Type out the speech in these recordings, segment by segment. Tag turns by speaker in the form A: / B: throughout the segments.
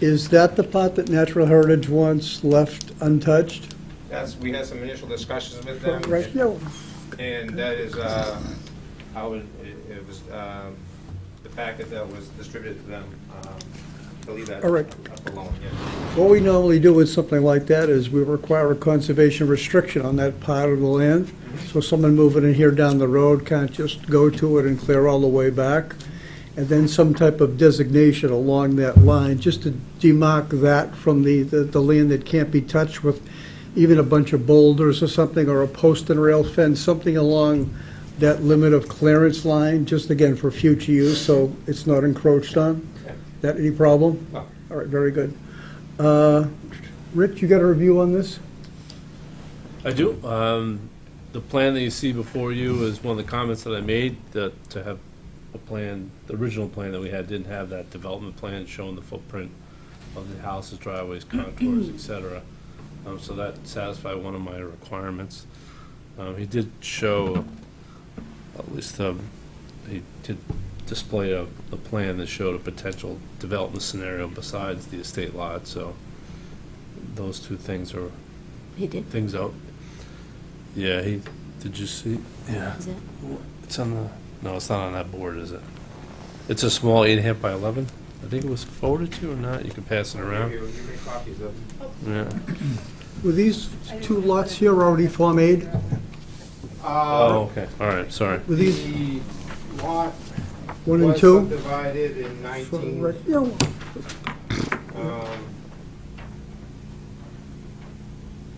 A: Is that the pot that Natural Heritage wants left untouched?
B: That's, we had some initial discussions with them.
A: Right, yeah,
B: And that is, uh, I would, it- it was, um, the packet that was distributed to them, um, I believe that.
A: All right.
B: Up alone, yeah.
A: what we normally do with something like that is we require a conservation restriction on that part of the land. So someone moving in here down the road can't just go to it and clear all the way back. And then some type of designation along that line, just to demarc that from the, the the land that can't be touched with even a bunch of boulders or something, or a post and rail fence, something along that limit of clearance line, just again for future use, so it's not encroached on. That any problem?
B: No.
A: All right, very good. Uh, Rich, you got a review on this?
C: I do. Um, The plan that you see before you is one of the comments that I made, that to have a plan, the original plan that we had didn't have that development plan showing the footprint of the houses, driveways, contours, et cetera. Um, So that satisfied one of my requirements. Um, He did show, at least, um, he did display a, the plan that showed a potential development scenario besides the estate lot, so those two things are
D: He did,
C: things out. Yeah, he, did you see? Yeah.
D: is it?
C: It's on the, no, it's not on that board, is it? It's a small eight and a half by 11. I think it was forwarded to you or not. You can pass it around.
B: You you made copies of.
C: Yeah.
A: Uh, Were these two lots here already Form Aid?
C: Oh, okay. All right, sorry.
A: Were these
B: uh, The lot
A: one and two?
B: subdivided in
A: For rec- Yeah,
B: um,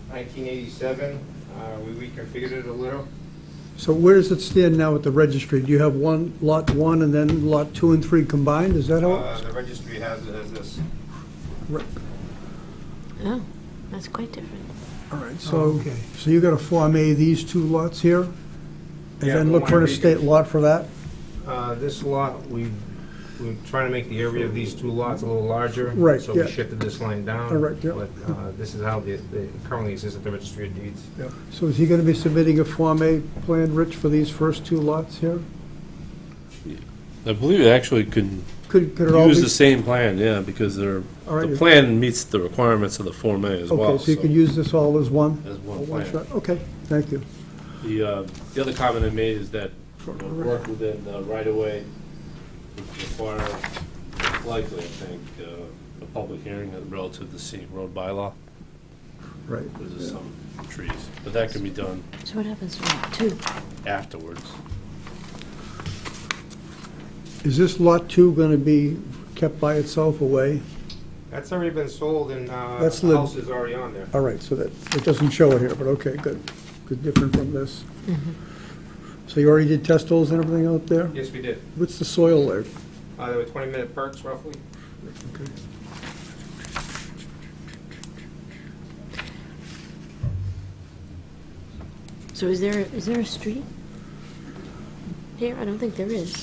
B: 1987. Uh, We reconfigured it a little.
A: So where does it stand now at the registry? Do you have one, lot one, and then lot two and three combined? Is that how?
B: Uh, The registry has it as this.
A: Right.
D: Oh, that's quite different.
A: All right, so, so you got to Form A these two lots here? And
B: Yeah,
A: then
B: we
A: look for an
B: wanna make it-
A: estate lot for that?
B: Uh, This lot, we, we're trying to make the area of these two lots a little larger.
A: Right,
B: So
A: yeah.
B: we shifted this line down.
A: All right, yeah.
B: But uh, this is how they they currently exist at the registry of deeds.
A: So is he going to be submitting a Form A plan, Rich, for these first two lots here?
C: I believe it actually could
A: Could, could it all be?
C: use the same plan, yeah, because they're,
A: all right,
C: the plan meets the requirements of the Form A as well.
A: Okay, so you could use this all as one?
C: As
A: a
C: one plan.
A: shot? Okay, thank you.
C: The, uh, the other comment I made is that you know, work within the right-of-way would require likely, I think, uh, a public hearing relative to the road bylaw.
A: Right.
C: There's just some trees, but that can be done
D: So what happens to lot two?
C: afterwards.
A: Is this lot two going to be kept by itself away?
B: That's already been sold and uh,
A: That's
B: the
A: lit-
B: house is already on there.
A: All right, so that, it doesn't show it here, but okay, good, good, different from this. So you already did test holes and everything out there?
B: Yes, we did.
A: What's the soil there?
B: Uh, There were 20-minute perks roughly.
D: So is there, is there a street? Here, I don't think there is.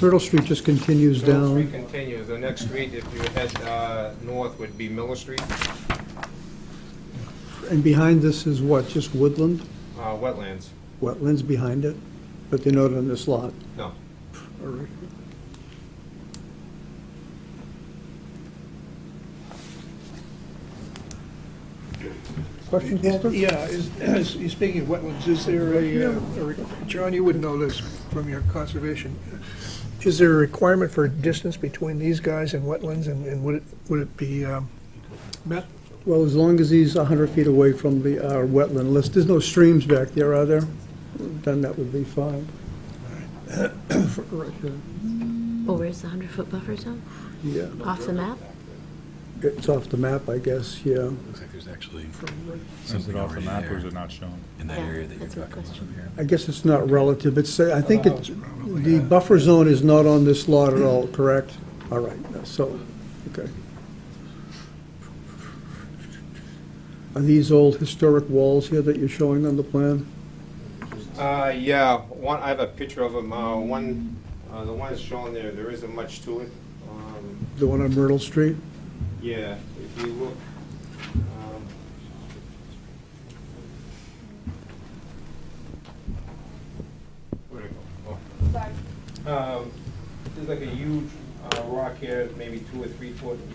A: Myrtle Street just continues
B: Mill Street
A: down.
B: continues. The next street, if you head uh, north, would be Miller Street,
A: And behind this is what, just woodland?
B: uh, wetlands.
A: Wetlands behind it? But they're not on this lot.
B: No.
A: All right. Questions, Walter?
E: Yeah, is, is, you speaking of wetlands, is there a, uh, a, re- John, you would know this from your conservation. Is there a requirement for distance between these guys and wetlands, and, and would it, would it be, um, met?
A: Well, as long as he's 100 feet away from the uh, wetland list, there's no streams back there, are there? Then that would be fine. Right here.
D: Oh, where's the hundred foot buffer zone?
A: Yeah,
D: Off the map?
A: it's off the map, I guess, yeah.
F: Looks like there's actually
G: Is it
F: something
G: off the
F: already
G: map or is
F: there
G: it not shown?
F: in that
D: Yeah,
F: area that you're
D: that's my
F: talking about
D: question.
F: over here.
A: I guess it's not relative, it's, I think it, the buffer zone is not on this lot at all, correct? All right, so, okay. Are these old historic walls here that you're showing on the plan?
B: Uh, yeah, one, I have a picture of them, uh, one, uh, the one that's shown there, there isn't much to it. Um,
A: The one on Myrtle Street?
B: Yeah, if you look, um, where'd it go? Oh. Um, there's like a huge, uh, rock here, maybe two or three foot